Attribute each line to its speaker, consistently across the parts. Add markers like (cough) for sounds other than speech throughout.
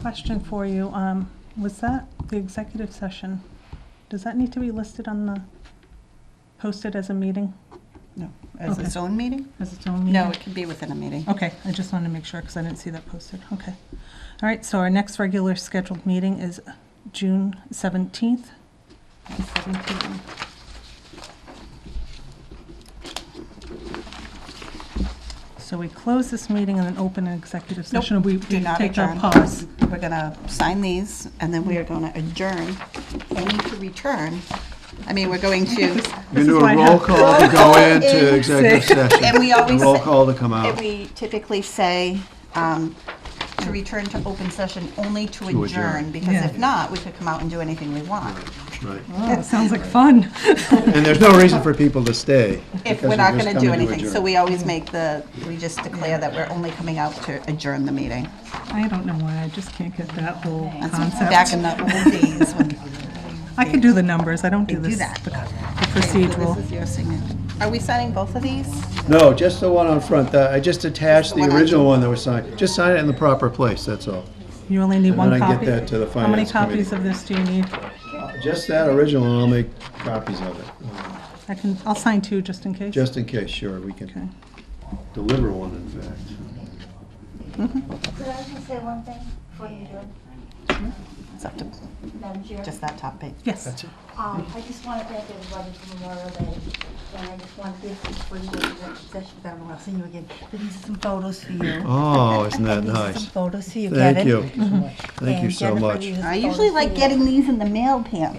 Speaker 1: Question for you, um, was that the executive session? Does that need to be listed on the, posted as a meeting,
Speaker 2: As its own meeting?
Speaker 1: as its own meeting?
Speaker 2: No, it can be within a meeting.
Speaker 1: Okay, I just wanted to make sure, because I didn't see that posted, okay. All right, so our next regular scheduled meeting is June seventeenth. So we close this meeting and then open an executive
Speaker 2: Nope,
Speaker 1: session. We
Speaker 2: do
Speaker 1: we
Speaker 2: not
Speaker 1: Take our
Speaker 2: adjourn.
Speaker 1: pause.
Speaker 2: We're gonna sign these, and then we are gonna adjourn. I need to return. I mean, we're going to,
Speaker 1: This
Speaker 3: You
Speaker 1: is
Speaker 3: do
Speaker 1: why I
Speaker 3: a roll
Speaker 1: have-
Speaker 3: call to go into executive session.
Speaker 2: and we
Speaker 3: A
Speaker 2: always,
Speaker 3: roll
Speaker 2: say-
Speaker 3: call to come
Speaker 2: and
Speaker 3: out.
Speaker 2: we typically say, um, to return to open session only to
Speaker 3: To adjourn.
Speaker 2: adjourn, because
Speaker 1: Yeah.
Speaker 2: if not, we could come out and do anything we want.
Speaker 3: Right.
Speaker 1: That sounds like fun. (laughs)
Speaker 3: And there's no reason for people to stay.
Speaker 2: If
Speaker 3: because
Speaker 2: we're not
Speaker 3: just
Speaker 2: gonna
Speaker 3: coming
Speaker 2: do
Speaker 3: to
Speaker 2: anything, so
Speaker 3: adjourn.
Speaker 2: we always make the, we just declare that we're only coming out to adjourn the meeting.
Speaker 1: I don't know why, I just can't get that whole
Speaker 2: That's back
Speaker 1: concept.
Speaker 2: in the old days when
Speaker 1: I could do the numbers, I don't do
Speaker 2: they
Speaker 1: this,
Speaker 2: do
Speaker 1: the
Speaker 2: that.
Speaker 1: procedural.
Speaker 2: This is your signature. Are we signing both of these?
Speaker 3: No, just the one on front. The- I just attached the
Speaker 2: one I
Speaker 3: original
Speaker 2: took.
Speaker 3: one that was signed. Just sign it in the proper place, that's all.
Speaker 1: You only need
Speaker 3: And
Speaker 1: one
Speaker 3: then I
Speaker 1: copy?
Speaker 3: get that to the
Speaker 1: How many
Speaker 3: finance committee.
Speaker 1: copies of this do you need?
Speaker 3: Just that original, and I'll make copies of it,
Speaker 1: I can, I'll sign two just in case.
Speaker 3: just in case, sure, we
Speaker 1: Okay.
Speaker 3: can deliver one, in fact.
Speaker 4: Could I just say one thing before you do it,
Speaker 2: It's up to,
Speaker 4: Madam Chair?
Speaker 2: just that top page.
Speaker 1: Yes.
Speaker 4: Um, I just want to thank everybody for Memorial Day, and I just want to give you for your session, Madam, I'll see you again. But These are some photos for you.
Speaker 3: Oh, isn't that
Speaker 4: And these are some
Speaker 3: nice?
Speaker 4: photos for you, get
Speaker 3: Thank
Speaker 4: it?
Speaker 3: you. Thank you
Speaker 4: And
Speaker 3: so
Speaker 4: Jennifer,
Speaker 3: much.
Speaker 4: these are
Speaker 2: I
Speaker 4: some
Speaker 2: usually
Speaker 4: photos
Speaker 2: like
Speaker 4: for you.
Speaker 2: getting these in the mail, (laughs) Pam.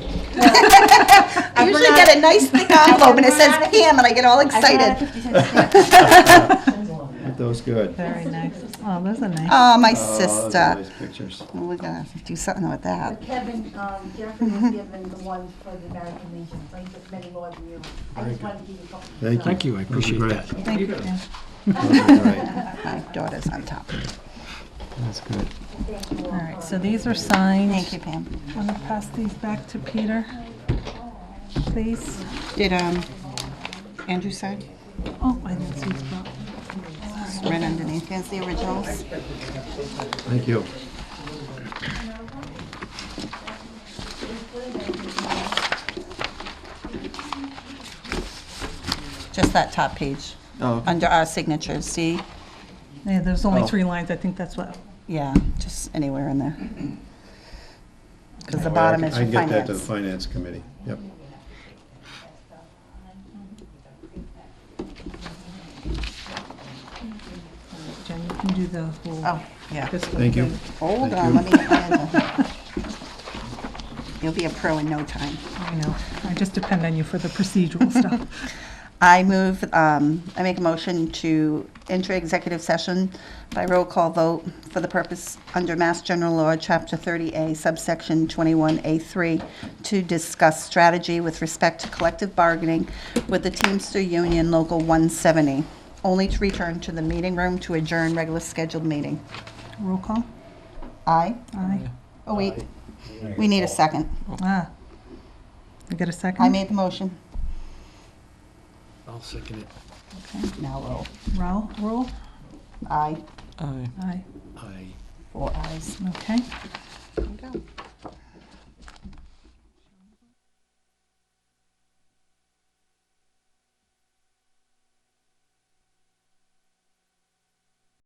Speaker 2: I usually get a nice (laughs) thick envelope and it says Pam and I get all
Speaker 4: I brought a
Speaker 2: excited.
Speaker 4: 50 cent stamp.
Speaker 3: Aren't those good?
Speaker 1: Very nice. Oh, those are nice.
Speaker 2: Oh, my
Speaker 3: Oh, those are
Speaker 2: sister.
Speaker 3: nice pictures.
Speaker 2: We're gonna do something with that.
Speaker 4: Kevin, um, Jennifer was given the ones for the American Legion, I think there's many more than you. I just wanted to give you a couple.
Speaker 3: Thank you.
Speaker 5: Thank you, I
Speaker 3: Those are
Speaker 5: appreciate
Speaker 3: great.
Speaker 5: that.
Speaker 1: Thank you. Ann.
Speaker 3: Those are great.
Speaker 2: My daughter's on top.
Speaker 3: That's good.
Speaker 1: All right, so these are signed.
Speaker 2: Thank you, Pam.
Speaker 1: I'm gonna pass these back to Peter, please.
Speaker 2: Did, um, Andrew sign?
Speaker 1: Oh, I didn't see his book.
Speaker 2: It's Right underneath, there's the originals.
Speaker 3: Thank you.
Speaker 2: Just that top page,
Speaker 3: Oh, okay.
Speaker 2: under our signatures, see?
Speaker 1: Yeah, there's only
Speaker 3: Oh.
Speaker 1: three lines, I think that's what,
Speaker 2: Yeah, just anywhere in there. Because the
Speaker 3: Oh, I
Speaker 2: bottom
Speaker 3: can-
Speaker 2: is for
Speaker 3: I can get that to the
Speaker 2: finance.
Speaker 3: finance committee, yep.
Speaker 1: Jen, you can do the whole,
Speaker 2: Oh, yeah.
Speaker 1: this one.
Speaker 3: Thank you.
Speaker 2: Hold
Speaker 3: Thank
Speaker 2: on,
Speaker 3: you.
Speaker 2: let me get my agenda. (laughs) You'll be a pro in no time.
Speaker 1: I know, I just depend on you for the
Speaker 3: (laughs)
Speaker 1: procedural stuff.
Speaker 2: I move, um, I make a motion to enter executive session by roll call vote for the purpose under Mass General Law, Chapter 30A, subsection 21A3, to discuss strategy with respect to collective bargaining with the Teamster Union Local 170, only to return to the meeting room to adjourn regular scheduled meeting.
Speaker 1: Roll call?
Speaker 2: Aye?
Speaker 1: Aye.
Speaker 2: Oh, wait. We need a second.
Speaker 1: Ah. You get a second?
Speaker 2: I made the motion.
Speaker 5: I'll second it.
Speaker 2: Now roll.
Speaker 1: Roll, roll?
Speaker 2: Aye.
Speaker 1: Aye.
Speaker 5: I.
Speaker 2: Four ayes.
Speaker 1: Okay.
Speaker 2: There you go.